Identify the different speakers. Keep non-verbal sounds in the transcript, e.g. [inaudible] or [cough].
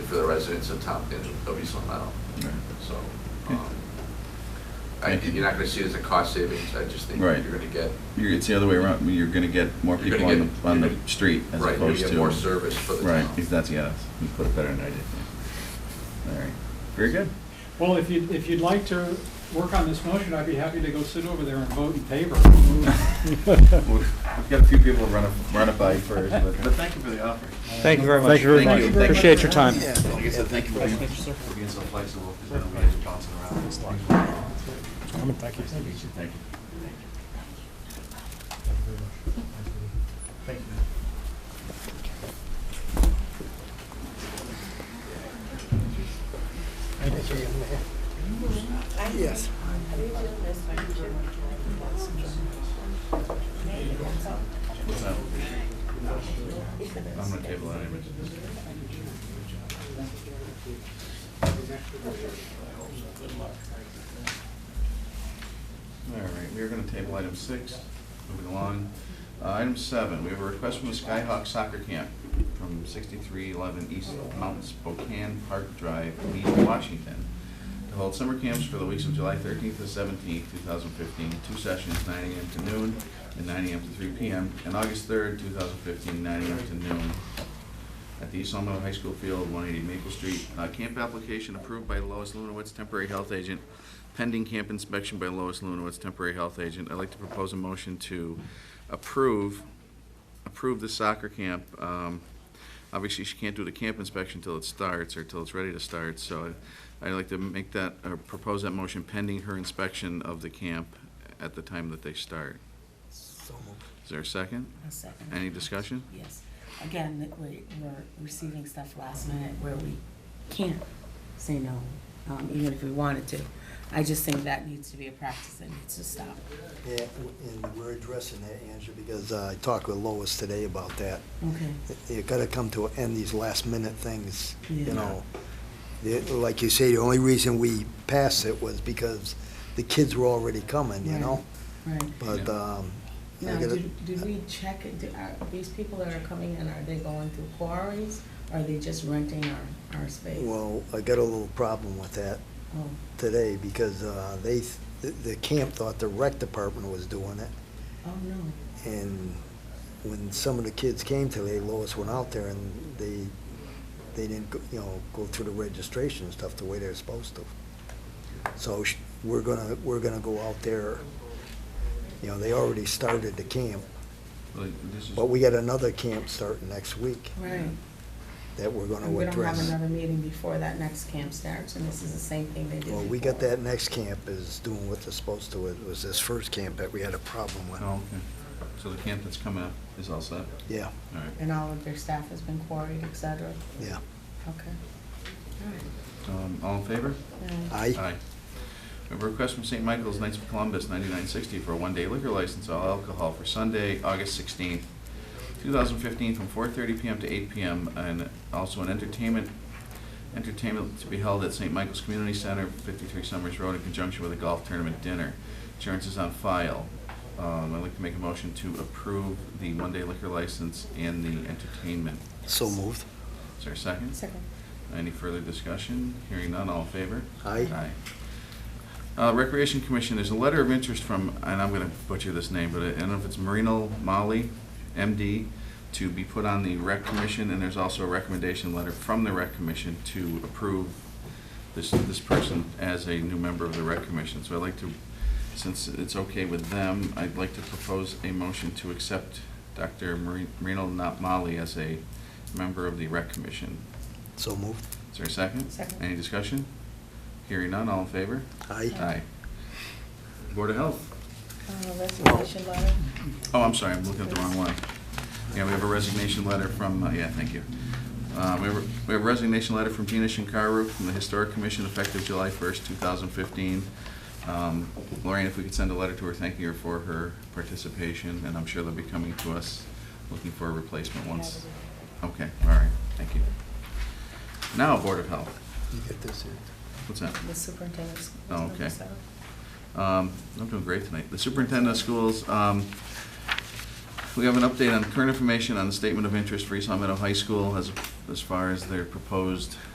Speaker 1: residents of town, of East Long Meadow,
Speaker 2: Right.
Speaker 1: so. um, I, you're not gonna see it as a cost savings, I just think you're
Speaker 2: Right.
Speaker 1: gonna get,
Speaker 2: You're, it's the other way around, you're gonna get more
Speaker 1: You're
Speaker 2: people
Speaker 1: gonna
Speaker 2: on the,
Speaker 1: get-
Speaker 2: on
Speaker 1: you're
Speaker 2: the
Speaker 1: gonna-
Speaker 2: street
Speaker 1: right,
Speaker 2: as
Speaker 1: you're
Speaker 2: opposed
Speaker 1: gonna
Speaker 2: to.
Speaker 1: get more service for the
Speaker 2: Right,
Speaker 1: town.
Speaker 2: if that's, yeah, that's- you put it better than I did. yeah. All right, very good.
Speaker 3: Well, if you, if you'd like to work on this motion, I'd be happy to go sit over there and vote in favor.
Speaker 2: [laughs] We've we've got a few people to run it, run it by first, but,
Speaker 3: [laughs]
Speaker 2: but thank you for the offer.
Speaker 4: Thank you very much.
Speaker 5: Thank you very
Speaker 2: Thank you.
Speaker 5: much. Appreciate your time.
Speaker 2: Like I said, thank you for being
Speaker 6: for being so flexible, because then we had to bounce it around.
Speaker 2: Thank you.
Speaker 5: Yes.
Speaker 2: I'm gonna table that anyway. All right, we are gonna table item six, moving along. Uh, Item seven, we have a request from the Skyhawk Soccer Camp from sixty-three eleven East Mount Spokane Park Drive, Lee, Washington, to hold summer camps for the weeks of July thirteenth to seventeenth, two thousand fifteen, two sessions, nine AM to noon and nine AM to three PM, and August third, two thousand fifteen, nine AM to noon at the East Long Meadow High School Field, one eighty Maple Street. Uh, camp application approved by Lois Lunowitz, temporary health agent, pending camp inspection by Lois Lunowitz, temporary health agent. I'd like to propose a motion to approve, approve the soccer camp. Um, obviously, she can't do the camp inspection till it starts or till it's ready to start, so I- I'd like to make that, or propose that motion pending her inspection of the camp at the time that they start. Is there a second?
Speaker 7: A second.
Speaker 2: Any discussion?
Speaker 7: Yes. Again, that we, we're receiving stuff last minute where we can't say no, um, even if we wanted to. I just think that needs to be a practice that needs to stop.
Speaker 5: Yeah, and we're addressing that, Andrew, because uh, I talked with Lois today about that.
Speaker 7: Okay.
Speaker 5: You gotta come to an end, these last minute things,
Speaker 7: Yeah.
Speaker 5: you know. The- Like you say, the only reason we passed it was because the kids were already coming, you know?
Speaker 7: Right.
Speaker 5: But,
Speaker 2: Yeah.
Speaker 5: um, I
Speaker 7: Now,
Speaker 5: gotta-
Speaker 7: did, did we check, it? Do- are these people that are coming in, are they going through quarries? Are they just renting our, our space?
Speaker 5: uh, well, I got a little problem with that
Speaker 7: Oh,
Speaker 5: today because uh, they, th- the- the camp thought the rec department was doing it.
Speaker 7: oh, no.
Speaker 5: And when some of the kids came today, Lois went out there and they, they didn't, go you know, go through the registration and stuff the way they're supposed to. So sh- we're gonna, we're gonna go out there, you know, they already started the camp,
Speaker 2: Like, this is-
Speaker 5: but we got another camp starting next week
Speaker 7: Right.
Speaker 5: that we're gonna
Speaker 7: And we don't have
Speaker 5: address.
Speaker 7: another meeting before that next camp starts, and this is the same thing they did
Speaker 5: Well, we got
Speaker 7: before.
Speaker 5: that next camp is doing what they're supposed to. It was this first camp that we had a problem with.
Speaker 2: Oh, okay. So the camp that's coming up is all set? All
Speaker 5: Yeah,
Speaker 2: right.
Speaker 7: And all of their staff has been quarried, et cetera?
Speaker 5: yeah.
Speaker 7: Okay.
Speaker 2: Um, all in favor? Uh,
Speaker 7: Alright.
Speaker 5: Aye.
Speaker 2: We have a request from St. Michael's Knights of Columbus, ninety-nine sixty, for a one-day liquor license, all alcohol, for Sunday, August sixteenth, two thousand fifteen, from four thirty PM to eight PM, and also an entertainment, entertainment to be held at St. Michael's Community Center, fifty-three Summers Road, in conjunction with a golf tournament dinner. Insurance is on file. Um, I'd like to make a motion to approve the one-day liquor license and the entertainment.
Speaker 5: So moved.
Speaker 2: Is there a second?
Speaker 7: Second.
Speaker 2: Any further discussion? Hearing none, all in favor?
Speaker 5: Aye.
Speaker 2: Aye. Uh, Recreation Commission, there's a letter of interest from, and I'm gonna butcher this name, but I don't know if it's Marino Molly, MD, to be put on the Rec Commission, and there's also a recommendation letter from the Rec Commission to approve this, this person as a new member of the Rec Commission. So I'd like to, since it's okay with them, I'd like to propose a motion to accept Dr. Mari- Marino Not Molly as a member of the Rec Commission.
Speaker 5: So moved.
Speaker 2: Is there a second?
Speaker 7: Second.
Speaker 2: Any discussion? Hearing none, all in favor?
Speaker 5: Aye.
Speaker 2: Aye. Board of Health.
Speaker 7: Uh, Resignation letter?
Speaker 2: Oh, I'm sorry, I'm looking at the wrong one. Yeah, we have a resignation letter from, uh, yeah, thank you. Uh, We have a- we have a resignation letter from Gina Shinkaru from the Historic Commission effective July 1st, 2015. Um, Lorraine, if we could send a letter to her thanking her for her participation, and I'm sure they'll be coming to us looking for a replacement once. Okay, all right, thank you. Now, Board of Health.
Speaker 5: You get this here.
Speaker 2: What's that?
Speaker 7: The superintendent's.
Speaker 2: Oh, okay. Um, I'm doing great tonight. The superintendent of schools, um, we have an update on current information on the statement of interest for East Long Meadow High School as, as far as their proposed